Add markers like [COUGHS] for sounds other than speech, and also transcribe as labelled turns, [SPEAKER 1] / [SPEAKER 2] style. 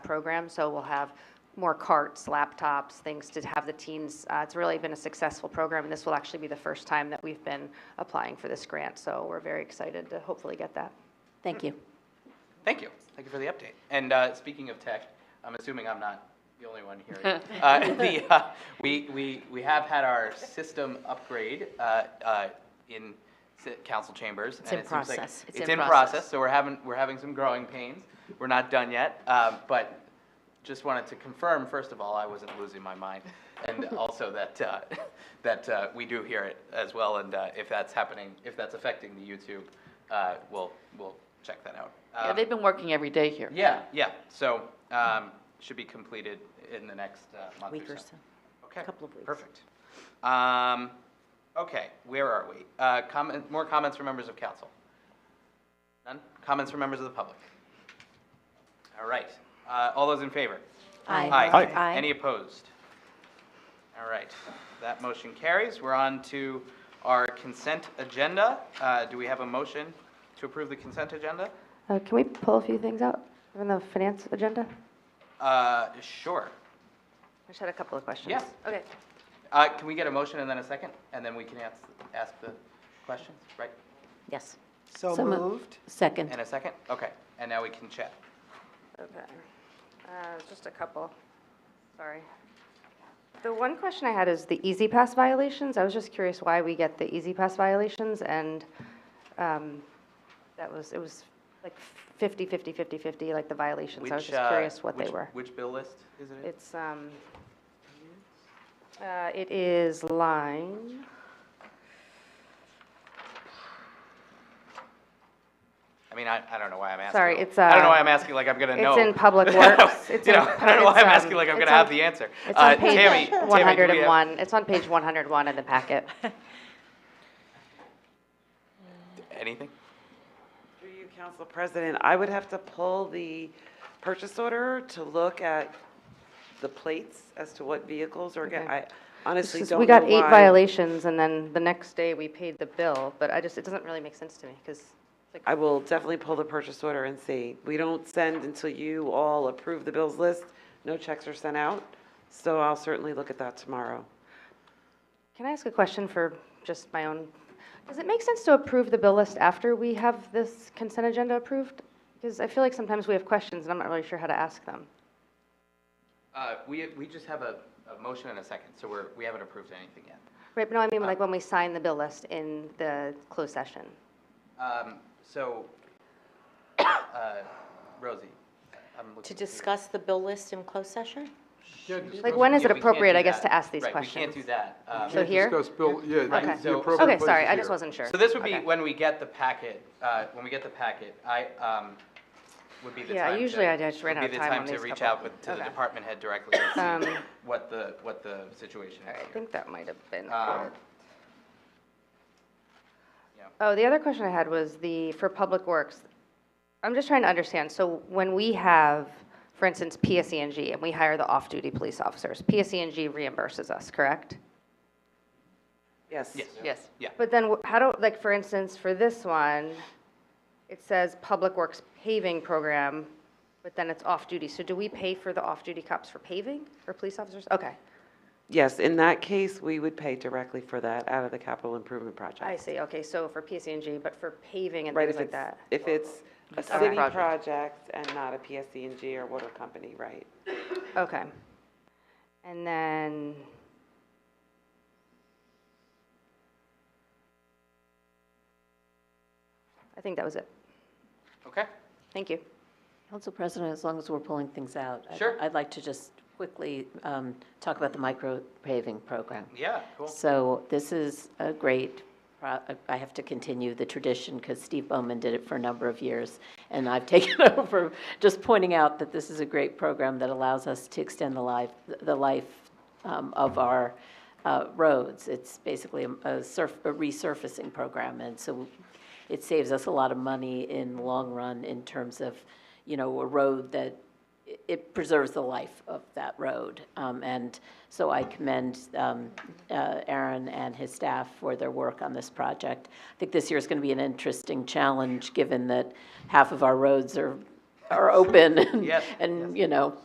[SPEAKER 1] program, so we'll have more carts, laptops, things to have the teens. Uh, It's really been a successful program, and this will actually be the first time that we've been applying for this grant, so we're very excited to hopefully get that.
[SPEAKER 2] Thank you.
[SPEAKER 3] Thank you. Thank you for the update. And uh, speaking of tech, I'm assuming I'm not the only one here. Uh, the, uh, We, we, we have had our system upgrade uh, uh, in si- council chambers.
[SPEAKER 2] It's
[SPEAKER 3] and
[SPEAKER 2] in
[SPEAKER 3] it seems like
[SPEAKER 2] process.
[SPEAKER 3] It's in process, so we're having, we're having some growing pains. We're not done yet, uh, but just wanted to confirm, first of all, I wasn't losing my mind. And also that, uh, [LAUGHS] that uh, we do hear it as well, and uh, if that's happening, if that's affecting the YouTube, uh, we'll, we'll check that out.
[SPEAKER 4] Yeah,
[SPEAKER 3] Um,
[SPEAKER 4] they've been working every day here.
[SPEAKER 3] yeah, yeah, so, um, should be completed in the next uh, month or so.
[SPEAKER 2] Week or so.
[SPEAKER 3] Okay.
[SPEAKER 2] Couple of weeks.
[SPEAKER 3] Perfect. Um, okay, where are we? Uh, comment, more comments from members of council? None? Comments from members of the public? All right, uh, all those in favor?
[SPEAKER 2] Aye.
[SPEAKER 3] Aye.
[SPEAKER 2] Aye.
[SPEAKER 3] Any opposed? All right, that motion carries. We're on to our consent agenda. Uh, do we have a motion to approve the consent agenda?
[SPEAKER 1] Uh, Can we pull a few things out from the finance agenda?
[SPEAKER 3] Uh, sure.
[SPEAKER 1] I just had a couple of questions.
[SPEAKER 3] Yeah.
[SPEAKER 1] Okay.
[SPEAKER 3] Uh, can we get a motion and then a second, and then we can ask, ask the questions, right?
[SPEAKER 2] Yes.
[SPEAKER 5] So
[SPEAKER 2] So mo-
[SPEAKER 5] moved.
[SPEAKER 2] Second.
[SPEAKER 3] And a second? Okay, and now we can chat.
[SPEAKER 1] Okay. Uh, Just a couple, sorry. The one question I had is the Easy Pass violations. I was just curious why we get the Easy Pass violations, and um, that was, it was like 50, 50, 50, 50, like the violations. I was
[SPEAKER 3] Which,
[SPEAKER 1] just
[SPEAKER 3] uh,
[SPEAKER 1] curious what they
[SPEAKER 3] which-
[SPEAKER 1] were.
[SPEAKER 3] Which bill list is it in?
[SPEAKER 1] It's, um, uh, it is line.
[SPEAKER 3] I mean, I, I don't know why I'm asking.
[SPEAKER 1] Sorry, it's,
[SPEAKER 3] I don't know
[SPEAKER 1] uh,
[SPEAKER 3] why I'm asking like I'm gonna
[SPEAKER 1] it's
[SPEAKER 3] know. [LAUGHS]
[SPEAKER 1] in Public Works. It's
[SPEAKER 3] You
[SPEAKER 1] in
[SPEAKER 3] know, I don't know why
[SPEAKER 1] pub-
[SPEAKER 3] I'm
[SPEAKER 1] it's,
[SPEAKER 3] asking
[SPEAKER 1] um,
[SPEAKER 3] like I'm
[SPEAKER 1] it's
[SPEAKER 3] gonna have
[SPEAKER 1] on-
[SPEAKER 3] the answer.
[SPEAKER 1] It's
[SPEAKER 3] Uh,
[SPEAKER 1] on
[SPEAKER 3] Tammy-
[SPEAKER 1] page
[SPEAKER 3] Tammy, do we have-
[SPEAKER 1] 101. It's on page 101 in the packet.
[SPEAKER 3] Anything?
[SPEAKER 5] Through you, Council President, I would have to pull the purchase order to look at the plates as to what vehicles are getting,
[SPEAKER 1] Okay.
[SPEAKER 5] I honestly
[SPEAKER 1] It's
[SPEAKER 5] don't
[SPEAKER 1] just- We got
[SPEAKER 5] know
[SPEAKER 1] eight
[SPEAKER 5] why.
[SPEAKER 1] violations, and then the next day we paid the bill, but I just, it doesn't really make sense to me, because, like,
[SPEAKER 5] I will definitely pull the purchase order and see. We don't send until you all approve the bills list. No checks are sent out, so I'll certainly look at that tomorrow.
[SPEAKER 1] can I ask a question for just my own? Does it make sense to approve the bill list after we have this consent agenda approved? Because I feel like sometimes we have questions, and I'm not really sure how to ask them.
[SPEAKER 3] Uh, we, we just have a, a motion and a second, so we're, we haven't approved anything yet.
[SPEAKER 1] Right, but no, I mean, like, when we sign the bill list in the closed session.
[SPEAKER 3] Um, so, [COUGHS] uh, Rosie, I'm looking.
[SPEAKER 2] To
[SPEAKER 3] for you.
[SPEAKER 2] discuss the bill list in closed session?
[SPEAKER 1] Like, when is
[SPEAKER 3] Yeah,
[SPEAKER 1] it
[SPEAKER 3] we can't
[SPEAKER 1] appropriate,
[SPEAKER 3] do
[SPEAKER 1] I guess,
[SPEAKER 3] that.
[SPEAKER 1] to ask these
[SPEAKER 3] Right,
[SPEAKER 1] questions?
[SPEAKER 3] we can't do that. Um,
[SPEAKER 1] So here?
[SPEAKER 6] Discuss bill, yeah. the-
[SPEAKER 3] Right,
[SPEAKER 1] Okay,
[SPEAKER 6] the
[SPEAKER 3] so-
[SPEAKER 6] appropriate
[SPEAKER 1] okay,
[SPEAKER 6] place
[SPEAKER 1] sorry,
[SPEAKER 6] is
[SPEAKER 1] I just
[SPEAKER 6] here.
[SPEAKER 1] wasn't sure.
[SPEAKER 3] So this would be
[SPEAKER 1] Okay.
[SPEAKER 3] when we get the packet, uh, when we get the packet, I, um, would be the time
[SPEAKER 1] Yeah, usually
[SPEAKER 3] to-
[SPEAKER 1] I just ran
[SPEAKER 3] would
[SPEAKER 1] out
[SPEAKER 3] be
[SPEAKER 1] of
[SPEAKER 3] the
[SPEAKER 1] time on
[SPEAKER 3] to
[SPEAKER 1] these
[SPEAKER 3] reach
[SPEAKER 1] couple.
[SPEAKER 3] out with, to the
[SPEAKER 1] Okay.
[SPEAKER 3] department head directly and see
[SPEAKER 1] Um,
[SPEAKER 3] what the, what the situation
[SPEAKER 1] All right,
[SPEAKER 3] is
[SPEAKER 1] I
[SPEAKER 3] here.
[SPEAKER 1] think that might have been.
[SPEAKER 3] Um,
[SPEAKER 1] Oh, the other question I had was the, for Public Works, I'm just trying to understand, so when we have, for instance, PSE&G, and we hire the off-duty police officers, PSE&G reimburses us, correct?
[SPEAKER 5] Yes.
[SPEAKER 3] Yes.
[SPEAKER 4] Yes.
[SPEAKER 3] Yeah,
[SPEAKER 1] But then, wh- how do, like, for instance, for this one, it says Public Works paving program, but then it's off-duty, so do we pay for the off-duty cops for paving, or police officers? Okay,
[SPEAKER 5] Yes, in that case, we would pay directly for that out of the capital improvement project.
[SPEAKER 1] I see, okay, so for PSE&G, but for paving and
[SPEAKER 5] Right,
[SPEAKER 1] things
[SPEAKER 5] if
[SPEAKER 1] like
[SPEAKER 5] it's,
[SPEAKER 1] that?
[SPEAKER 5] if it's a
[SPEAKER 1] our
[SPEAKER 5] city
[SPEAKER 1] project.
[SPEAKER 5] project and not a PSC&G or water company, right?
[SPEAKER 1] Okay. And then. I think that was it.
[SPEAKER 3] okay,
[SPEAKER 1] Thank you.
[SPEAKER 2] Council President, as long as we're pulling things out. I'd-
[SPEAKER 3] Sure.
[SPEAKER 2] I'd like to just quickly um, talk about the micro paving program.
[SPEAKER 3] yeah, cool.
[SPEAKER 2] So this is a great, pro- I have to continue the tradition because Steve Bowman did it for a number of years. And I've [LAUGHS] taken over, just pointing out that this is a great program that allows us to extend the life, the life um, of our uh, roads. It's basically a- a surf, a resurfacing program. And so it saves us a lot of money in the long run in terms of, you know, a road that it preserves the life of that road. Um, And so I commend um, uh, Aaron and his staff for their work on this project. I think this year is going to be an interesting challenge, given that half of our roads are, are open. [LAUGHS] and-
[SPEAKER 3] Yes.
[SPEAKER 2] And, you know,